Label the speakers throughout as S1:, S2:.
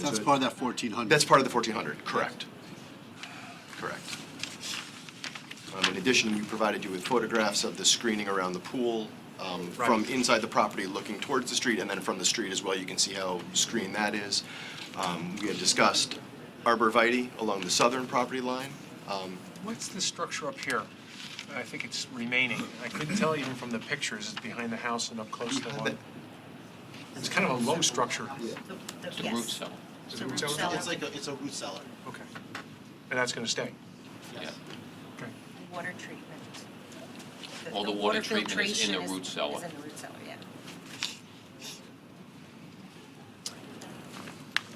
S1: That's part of that fourteen hundred.
S2: Uh, That's part of the 1,400, correct. Correct. Um, In addition, we provided you with photographs of the screening around the pool um, from
S3: Right.
S2: inside the property looking towards the street, and then from the street as well, you can see how screened that is. Um, We had discussed arborvitae along the southern property line. Um,
S3: What's this structure up here? I think it's remaining. I couldn't tell even from the pictures, it's behind the house and up close to the water. It's kind of a low structure.
S4: It's
S5: The root cell,
S3: Is it root cellar?
S1: It's like, a it's a root cellar.
S3: Okay. And that's going to stay?
S5: yeah.
S3: Okay.
S4: Water treatment.
S5: All the water treatment is in the
S4: filtration
S5: root cellar.
S4: Is in the root cellar,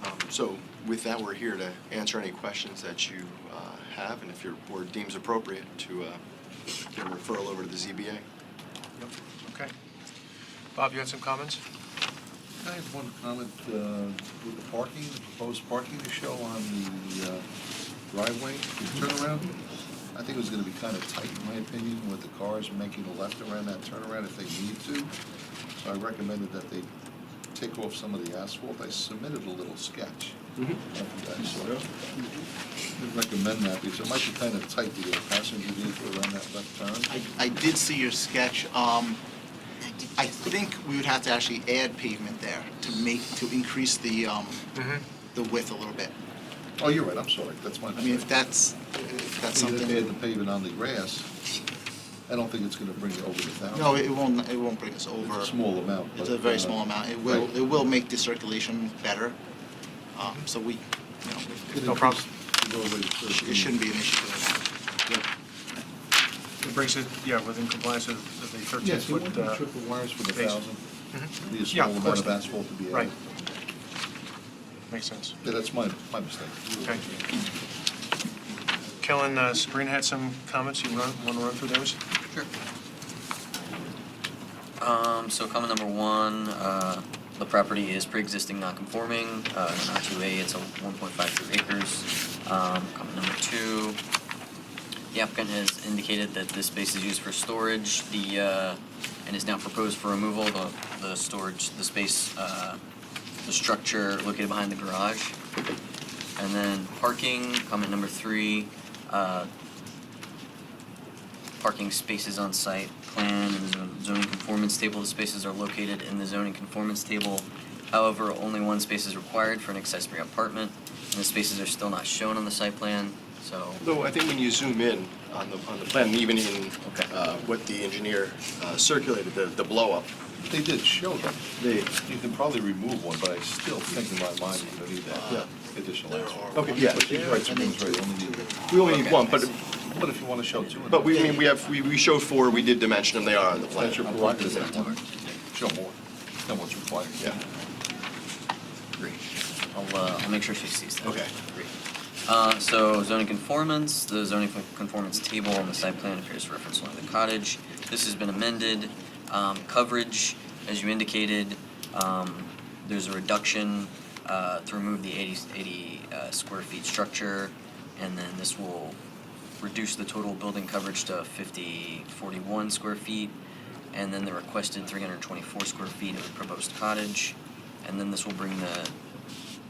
S4: yeah.
S2: Um, So with that, we're here to answer any questions that you uh, have, and if your board deems appropriate, to uh, give a referral over to the ZBA.
S3: Yep. Okay. Bob, you had some comments?
S6: I have one comment uh, with the parking, the proposed parking to show on the uh, driveway, the turnaround. I think it was gonna be kind of tight, in my opinion, with the cars making a left around that turnaround if they need to. So I recommended that they take off some of the asphalt. I submitted a little sketch.
S2: Mm-hmm.
S6: After that, so I Recommend that because it might be kind of tight to get a passenger vehicle around that left turn.
S7: I, I did see your sketch. Um, I think we would have to actually add pavement there to make, to increase the, um,
S6: Mm-hmm.
S7: the width a little bit.
S6: Oh, you're right, I'm sorry, that's my
S7: I mean,
S6: mistake.
S7: if that's, if that's
S6: Even if they had the
S7: something,
S6: pavement on the grass, I don't think it's gonna bring it over the thousand.
S7: no, it won't, it won't bring us
S6: It's
S7: over.
S6: a small amount,
S7: It's
S6: but,
S7: a very
S6: uh,
S7: small amount. It will,
S6: right.
S7: it will make the circulation better. Um, so we, you know,
S6: It
S3: No
S6: increased-
S3: problem.
S6: it goes over to
S7: it
S6: 13.
S7: shouldn't be an issue for that.
S3: It brings it, yeah, within compliance with with the
S6: Yes, you
S3: 13-foot.
S6: wouldn't be
S3: uh,
S6: triple wires with a
S3: base.
S6: thousand. It'd Be a
S3: Yeah,
S6: small
S3: of course.
S6: amount of asphalt to be
S3: Right.
S6: added.
S3: Makes sense.
S6: Yeah, that's my, my mistake.
S3: Okay. Kellen, uh, Sabrina had some comments. You want to run through those?
S8: Um, so comment number one, uh, the property is pre-existing non-conforming, uh, in R two A, it's a one point five two acres. Um, comment number two, the applicant has indicated that this space is used for storage, the, uh, and is now proposed for removal, the, the storage, the space, uh, the structure located behind the garage. And then parking, comment number three, uh, parking spaces on site plan and the zoning conformance table. The spaces are located in the zoning conformance table. However, only one space is required for an accessory apartment, and the spaces are still not shown on the site plan, so.
S2: Though I think when you zoom in on the, on the plan, even in
S8: Okay.
S2: uh, what the engineer uh, circulated, the, the blow-up,
S6: They did show them.
S2: they,
S6: You can probably remove one, but I still think in my mind you're gonna need
S2: Yeah.
S6: that additional asphalt.
S2: Okay, yeah.
S6: But you're right, Sabrina's right, only need one.
S2: we only need one, but,
S6: But if you wanna show two. in
S2: but we, I
S6: there,
S2: mean, we have, we, we showed four, we did dimension them, they are on the plan.
S6: That's your prerogative, that one. Show more than what's required.
S2: Yeah.
S8: Great. I'll, uh, I'll make sure she sees that.
S2: Okay.
S8: Great. Uh, so zoning conformance, the zoning con- conformance table on the site plan appears to reference only the cottage. This has been amended. Um, coverage, as you indicated, um, there's a reduction, uh, to remove the 80 80, uh, square feet structure. And then this will reduce the total building coverage to 50, 41 square feet. And then the requested three hundred twenty-four square feet of the proposed cottage. And then this will bring the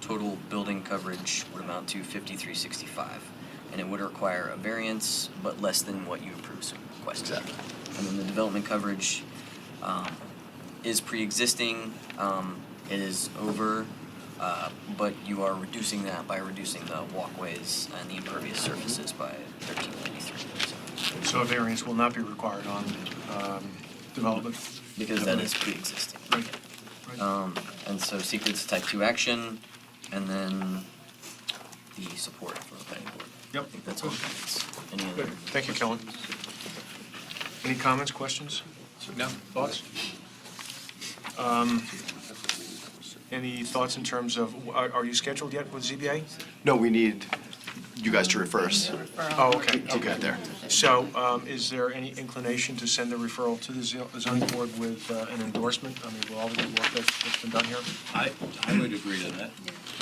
S8: total building coverage would amount to fifty-three sixty-five. And it would require a variance, but less than what you approved so requested.
S2: Exactly.
S8: And then the development coverage, um, is pre-existing, um, it is over, uh, but you are reducing that by reducing the walkways and the impervious surfaces by thirteen ninety-three, so.
S3: So a variance will not be required on um, development?
S8: Because that is pre-existing.
S3: Right. Right.
S8: Um, and so secret's type two action, and then the support for the planning board.
S3: Yep.
S8: I think that's all comments. Any
S3: Good.
S8: other?
S3: Thank you, Kellen. Any comments, questions? No. Thoughts? Um, Any thoughts in terms of, are are you scheduled yet with ZBA?
S2: No, we need you guys to refer us
S3: Oh, okay,
S2: to
S3: okay.
S2: get there.
S3: So um, is there any inclination to send a referral to the zo- zoning board with uh, an endorsement? I mean, with all the good work that's that's been done here?
S9: I, I would agree to that.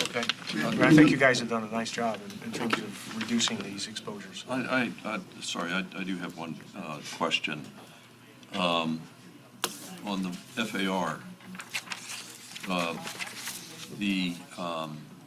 S3: Okay. I mean, I think you guys have done a nice job in- in terms of reducing these exposures.
S9: I, I, I- sorry, I, I do have one uh, question. Um, On the FAR, uh, the um,